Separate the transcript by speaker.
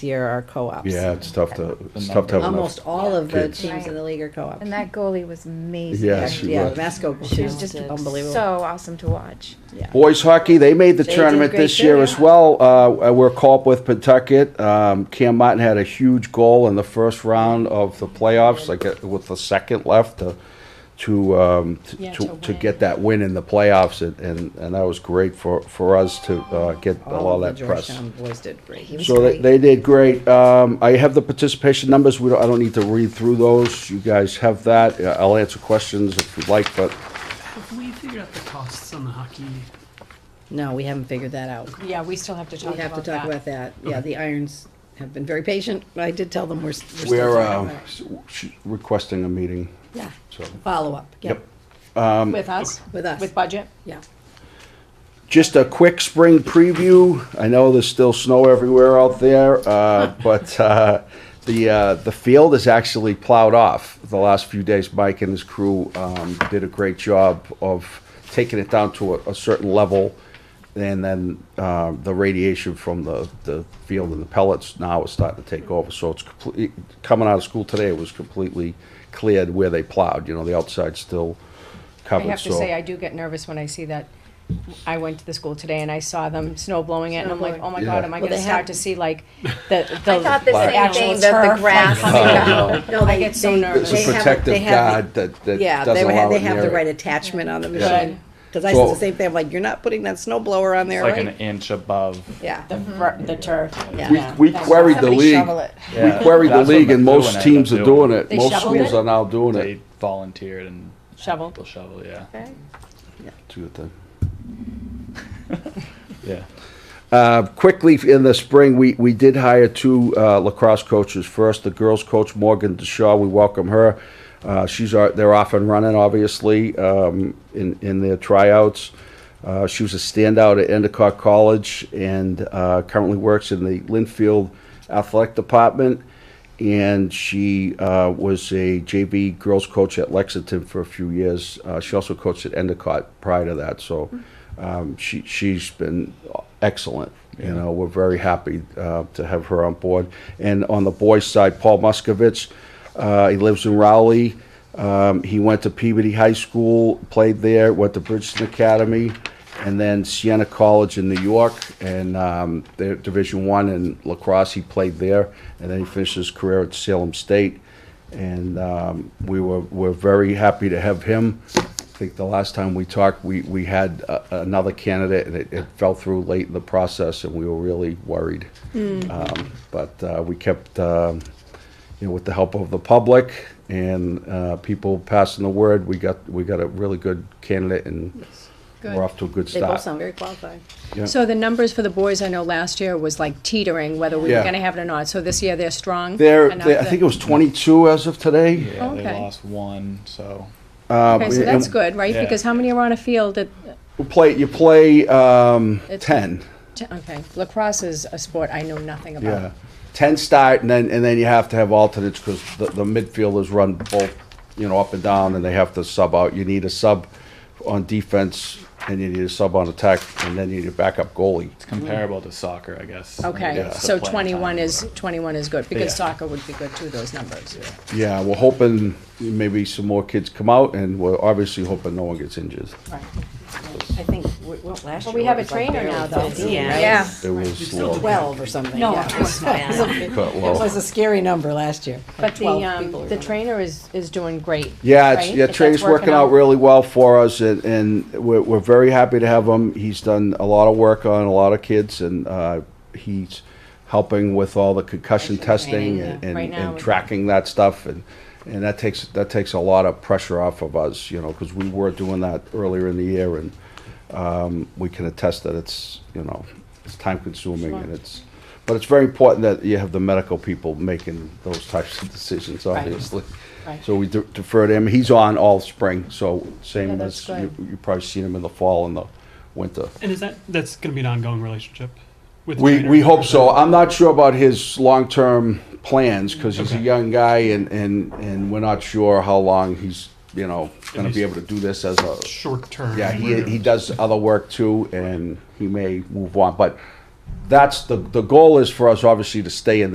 Speaker 1: year are co-ops.
Speaker 2: Yeah, it's tough to, it's
Speaker 3: The
Speaker 2: tough to have enough.
Speaker 1: Almost all of the
Speaker 2: kids.
Speaker 1: teams in the league are co-ops.
Speaker 4: And that goalie was amazing.
Speaker 2: Yeah, she
Speaker 1: Yeah,
Speaker 2: was.
Speaker 1: Vasco,
Speaker 4: She
Speaker 1: she's
Speaker 4: was
Speaker 1: just
Speaker 4: just
Speaker 1: unbelievable.
Speaker 4: so awesome to watch.
Speaker 2: Boys hockey, they made the
Speaker 1: They did
Speaker 2: tournament
Speaker 1: great
Speaker 2: this year
Speaker 1: there.
Speaker 2: as well. Uh, we're caught up with Pawtucket. Um, Cam Martin had a huge goal in the first round of the playoffs, like uh, with the second left to to um, t-
Speaker 5: Yeah,
Speaker 2: to,
Speaker 5: to
Speaker 2: to
Speaker 5: win.
Speaker 2: get that win in the playoffs, and and, and that was great for, for us to uh, get a
Speaker 1: All of
Speaker 2: lot of
Speaker 1: Oh, the
Speaker 2: that press.
Speaker 1: Georgetown boys did great.
Speaker 4: He was
Speaker 2: So they,
Speaker 4: great.
Speaker 2: they did great. Um, I have the participation numbers. We don't, I don't need to read through those. You guys have that. Uh, I'll answer questions if you'd like, but
Speaker 6: Have we figured out the costs on the hockey?
Speaker 1: No, we haven't figured that out.
Speaker 5: Yeah, we still have to talk
Speaker 1: We have to
Speaker 5: about
Speaker 1: talk
Speaker 5: that.
Speaker 1: about that. Yeah, the Irons have been very patient. I did tell them we're, s- we're still talking
Speaker 2: we're uh,
Speaker 1: about it.
Speaker 2: s- sh- requesting a meeting.
Speaker 1: Yeah,
Speaker 2: So
Speaker 1: follow-up, yeah,
Speaker 2: Yep.
Speaker 5: With us?
Speaker 1: With us.
Speaker 5: With budget?
Speaker 1: yeah.
Speaker 2: just a quick spring preview. I know there's still snow everywhere out there, uh, but uh, the uh, the field is actually plowed off the last few days. Mike and his crew um, did a great job of taking it down to a, a certain level, and then uh, the radiation from the, the field and the pellets now is starting to take over. So it's complete, coming out of school today. It was completely cleared where they plowed. You know, the outside's still
Speaker 5: I
Speaker 2: covered.
Speaker 5: have to
Speaker 2: so-
Speaker 5: say, I do get nervous when I see that. I went to the school today and I saw them snow blowing it and I'm like, oh my God,
Speaker 2: Yeah.
Speaker 5: am I
Speaker 1: Well,
Speaker 5: gonna
Speaker 1: they
Speaker 5: start
Speaker 1: have-
Speaker 5: to see like the, the
Speaker 4: I thought the
Speaker 2: Black.
Speaker 4: same
Speaker 5: actual
Speaker 4: thing that
Speaker 5: turf?
Speaker 4: the grass.
Speaker 5: like, coming
Speaker 2: Oh, No,
Speaker 5: down?
Speaker 1: No,
Speaker 5: I
Speaker 1: they-
Speaker 5: get so
Speaker 1: they-
Speaker 5: nervous.
Speaker 1: they
Speaker 2: It's a
Speaker 1: have-
Speaker 2: protective
Speaker 1: they have-
Speaker 2: guard that, that
Speaker 1: Yeah,
Speaker 2: doesn't
Speaker 1: they,
Speaker 2: allow
Speaker 1: ha- they
Speaker 2: it
Speaker 1: have
Speaker 2: near
Speaker 1: the
Speaker 2: it.
Speaker 1: right attachment on the
Speaker 2: Yeah.
Speaker 1: machine. Because I said
Speaker 2: So-
Speaker 1: the same thing, I'm like, you're not putting that snow blower on there,
Speaker 3: It's like an
Speaker 1: right?
Speaker 3: inch above.
Speaker 1: Yeah.
Speaker 5: The, fir- the turf.
Speaker 1: Yeah.
Speaker 2: We,
Speaker 5: Yeah.
Speaker 2: we queried the
Speaker 4: Somebody
Speaker 2: league,
Speaker 4: shovel it.
Speaker 2: we queried the
Speaker 3: That's what
Speaker 2: league and
Speaker 3: they're doing,
Speaker 2: most
Speaker 3: I
Speaker 2: teams
Speaker 3: end
Speaker 2: are
Speaker 3: up
Speaker 2: doing it.
Speaker 5: They
Speaker 2: Most
Speaker 5: shoveled
Speaker 2: schools
Speaker 5: it?
Speaker 2: are now doing it.
Speaker 3: They volunteered and
Speaker 5: Shovel.
Speaker 3: they'll shovel, yeah.
Speaker 4: Okay.
Speaker 2: It's a good thing.
Speaker 3: Yeah.
Speaker 2: Uh, quickly in the spring, we, we did hire two uh, lacrosse coaches. First, the girls' coach Morgan Deshaw. We welcome her. Uh, she's our, they're off and running, obviously, um, in in their tryouts. Uh, she was a standout at Endicott College and uh, currently works in the Linfield Athletic Department. And she uh, was a JV girls coach at Lexington for a few years. Uh, she also coached at Endicott prior to that. So um, she she's been excellent. You know, we're very happy uh, to have her on board. And on the boys' side, Paul Muskovich, uh, he lives in Rowley. Um, he went to Peabody High School, played there, went to Bridgeton Academy, and then Siena College in New York, and um, they're Division One in lacrosse. He played there, and then he finished his career at Salem State. And um, we were we're very happy to have him. I think the last time we talked, we, we had uh, another candidate, and it, it fell through late in the process, and we were really worried.
Speaker 1: Mm.
Speaker 2: Um, But uh, we kept, um, you know, with the help of the public and uh, people passing the word, we got, we got a really good candidate, and we're off to a good
Speaker 1: They
Speaker 2: start.
Speaker 1: both sound very qualified.
Speaker 2: Yeah.
Speaker 5: So the numbers for the boys, I know last year was like teetering whether we
Speaker 2: Yeah.
Speaker 5: were gonna have it or not. So this year they're strong.
Speaker 2: There,
Speaker 5: enough
Speaker 2: there- I
Speaker 5: that-
Speaker 2: think it was 22 as of today.
Speaker 3: Yeah, they
Speaker 5: Oh, Okay.
Speaker 3: lost one, so.
Speaker 5: Okay, so that's good, right?
Speaker 3: Yeah.
Speaker 5: Because how many are on a field at,
Speaker 2: You play, you play um,
Speaker 5: It's-
Speaker 2: 10.
Speaker 1: Oh.
Speaker 5: t- okay, lacrosse is a sport I know nothing about.
Speaker 2: Yeah, ten start, and then, and then you have to have alternates, because the, the midfielders run both, you know, up and down, and they have to sub out. You need a sub on defense, and you need a sub on attack, and then you need a backup goalie.
Speaker 3: It's comparable to soccer, I guess.
Speaker 5: Okay,
Speaker 3: It's the
Speaker 5: so
Speaker 3: playing
Speaker 5: twenty-one
Speaker 3: time,
Speaker 5: is, twenty-one is good, because
Speaker 3: Yeah.
Speaker 5: soccer would be good too, those numbers.
Speaker 2: Yeah, we're hoping maybe some more kids come out, and we're obviously hoping no one gets injured.
Speaker 1: I think, what, last year?
Speaker 5: Well, we have a trainer now though.
Speaker 4: Yeah.
Speaker 2: It was low.
Speaker 1: Twelve or something,
Speaker 5: No,
Speaker 1: yeah.
Speaker 5: of course not.
Speaker 2: Cut
Speaker 1: It
Speaker 2: low.
Speaker 1: was a scary number last year.
Speaker 5: But
Speaker 1: like
Speaker 5: the,
Speaker 1: 12
Speaker 5: um,
Speaker 1: people or
Speaker 5: the
Speaker 1: something.
Speaker 5: trainer is, is doing great.
Speaker 2: Yeah, it's,
Speaker 5: right?
Speaker 2: yeah,
Speaker 5: If that's
Speaker 2: Trey's working out really well for us, and, and we're, we're very happy to have him. He's done a lot of work on a lot of kids, and uh, he's helping with all the concussion testing and, and,
Speaker 5: Right now
Speaker 2: and
Speaker 5: it's-
Speaker 2: tracking that stuff, and and that takes that takes a lot of pressure off of us, you know, because we were doing that earlier in the year, and um, we can attest that it's you know it's time consuming and it's. But it's very important that you have the medical people making those types of decisions, obviously.
Speaker 5: Right.
Speaker 2: So we de- defer to him. He's on all spring, so
Speaker 5: Yeah,
Speaker 2: same as,
Speaker 5: that's
Speaker 2: you you probably seen him in the fall and the winter.
Speaker 6: And is that, that's gonna be an ongoing relationship with? the
Speaker 2: We,
Speaker 6: trainer?
Speaker 2: we hope so. I'm not sure about his long-term plans, because he's a young guy and, and, and we're not sure how long he's, you know, gonna be able to do this as a,
Speaker 6: Short term.
Speaker 2: yeah, he, he does other work too, and he may move on, but that's, the, the goal is for us obviously to stay in